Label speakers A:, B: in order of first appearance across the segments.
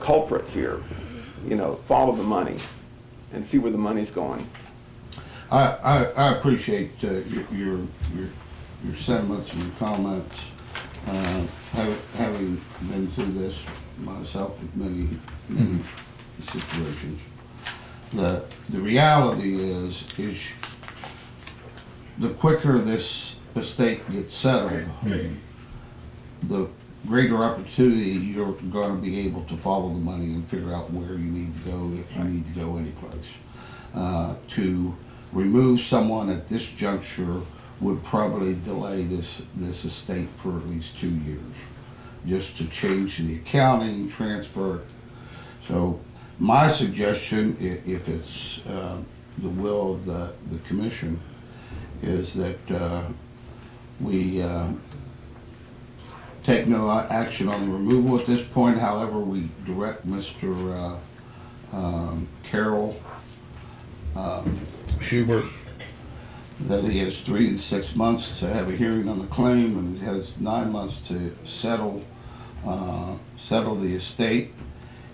A: culprit here. You know, follow the money and see where the money's going.
B: I, I, I appreciate uh, your, your, your your sentiments and your comments. Uh, hav- Having been through this myself with many, many situations. The, the reality is, is the quicker this estate gets settled, the greater opportunity you're gonna be able to follow the money and figure out where you need to go, if you need to go anyplace. Uh, To remove someone at this juncture would probably delay this, this estate for at least two years, just to change the accounting, transfer. it. So my suggestion, i- if it's uh, the will of the, the commission, is that uh, we uh, take no uh, action on the removal at this point, however, we direct Mr. uh, um, Carroll um, Schubert that he has three to six months to have a hearing on the claim, and he has nine months to settle, uh, settle the estate.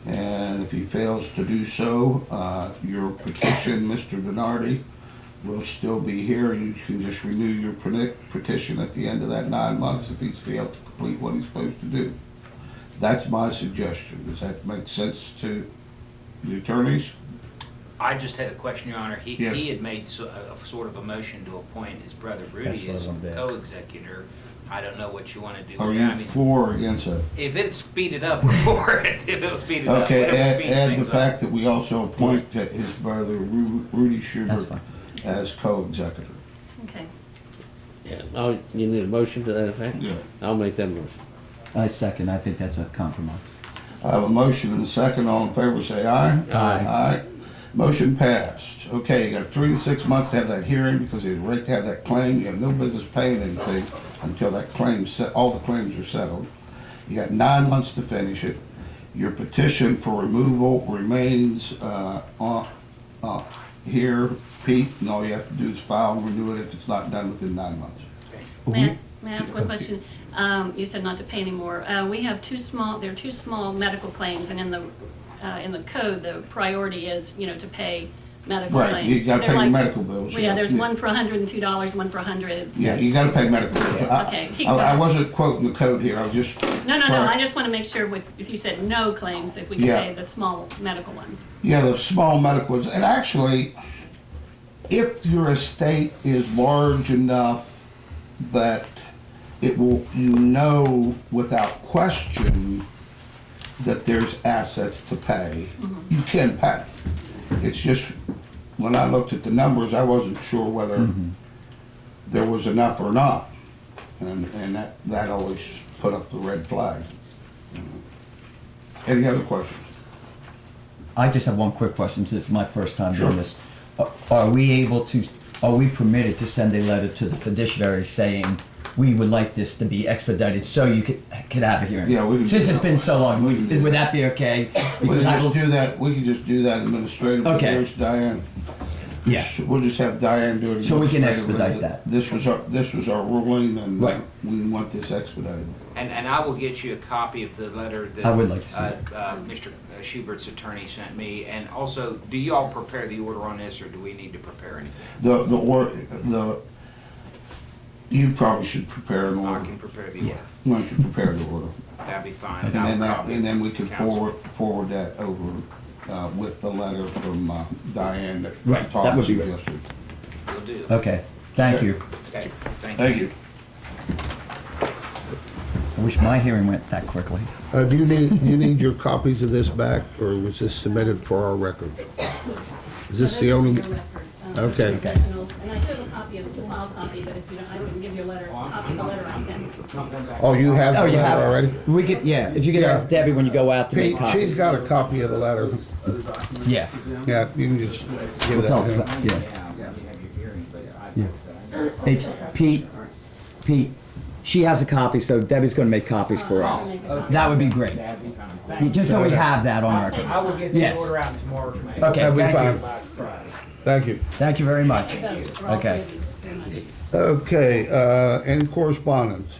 B: And if he fails to do so, uh, your petition, Mr. Donardi, will still be here, and you can just renew your peni- petition at the end of that nine months if he's failed to complete what he's supposed to do. That's my suggestion. Does that make sense to the attorneys?
C: I just had a question, Your Honor. He,
B: Yeah.
C: he had made so- a, a sort of a motion to appoint his brother
D: That's
C: Rudy
D: what I
C: as
D: was gonna ask.
C: co-executor. I don't know what you want to do
B: Are
C: with that.
B: you
C: I mean,
B: for or against it?
C: if it's speeded up, we're for it. If it'll speed it up,
B: Okay,
C: whatever
B: add,
C: speeds
B: add the
C: things up.
B: fact that we also appoint that his brother Ru- Rudy Schubert
D: fine.
B: as co-executive.
E: Okay.
F: Yeah, I'll, you need a motion to that effect?
B: Yeah.
F: I'll make that motion.
D: I second, I think that's a compromise.
B: I have a motion and a second, all in favor, say aye.
F: Aye.
B: Aye. Motion passed. Okay, you got three to six months to have that hearing because you're right to have that claim. You have no business paying anything until that claim, se- all the claims are settled. You got nine months to finish it. Your petition for removal remains uh, on- uh, here, Pete, and all you have to do is file and renew it if it's not done within nine months.
E: May I, may I ask one question? Um, you said not to pay anymore. Uh, we have two small, there are two small medical claims, and in the, uh, in the code, the priority is, you know, to pay medical
B: Right,
E: claims.
B: you gotta
E: They're
B: pay your
E: like-
B: medical bills,
E: Well, Yeah,
B: yeah.
E: there's
B: Yeah.
E: one for hundred and two dollars, one for hundred.
B: Yeah, you gotta pay medical. bills. I-
E: Okay.
B: I I wasn't quoting the code here, I was just.
E: No, no, no, I just wanna make sure with, if you said no claims, if we can
B: Yeah.
E: pay the small medical ones.
B: Yeah, the small medicals, and actually, if your estate is large enough that it will, you know without question that there's assets to pay, you can pay. It's just, when I looked at the numbers, I wasn't sure whether there was enough or not. And, and that, that always put up the red flag. Any other questions?
D: I just have one quick question, since it's my first time
B: Sure.
D: doing this. Are- Are we able to, are we permitted to send a letter to the fiduciary saying, we would like this to be expedited so you could, could have a hearing?
B: Yeah, we can-
D: Since it's been so long,
B: We can-
D: would that be okay?
B: We can
D: Because I
B: just
D: will-
B: do that, we can just do that administratively.
D: Okay.
B: There's Diane.
D: Yeah.
B: We'll just have Diane do it.
D: So we can
B: administratively.
D: expedite that.
B: This was our, this was our ruling and uh,
D: Right.
B: we want this expedited.
C: And, and I will get you a copy of the letter that.
D: I would like to see
C: uh,
D: that.
C: uh, Mr. Schubert's attorney sent me. And also, do you all prepare the order on this, or do we need to prepare anything?
B: The, the, or, the, you probably should prepare an
C: I
B: order.
C: can prepare the order.
B: Why don't you prepare the order?
C: That'd be fine.
B: And
C: I'll
B: then, that-
C: copy
B: and then we can
C: counsel.
B: forward, forward that over uh, with the letter from uh, Diane that
D: Right, that
B: Tom
D: would be great.
B: suggested.
C: Will do.
D: Okay, thank you.
C: Okay, thank you.
B: Thank you.
D: I wish my hearing went that quickly.
G: Uh, Do you need, do you need your copies of this back, or was this submitted for our records? Is this the only, Okay.
E: Um, And I
G: Okay.
E: do have a copy of, it's a file copy, but if you don't, I can give you a letter, a copy of the letter I sent.
G: oh, you have
D: Oh,
G: the
D: you have
G: letter
D: it.
G: already?
D: We could, yeah, if you could
G: Yeah.
D: ask Debbie when you go out to
G: Pete,
D: make copies.
G: she's got a copy of the letter.
D: Yeah,
G: Yeah, you can just give
D: we'll
G: that to
D: tell,
G: him.
D: yeah. Hey, Pete, Pete, she has a copy, so Debbie's gonna make copies for us. That would be great. Just so we have that on
E: I'll save
D: record.
E: you time.
D: Yes. Okay,
G: That'll be
D: thank
G: fine.
D: you.
G: Thank you.
D: Thank you very much.
E: Both, for all
D: Okay.
E: three of you, very much.
G: Okay, uh, any correspondence?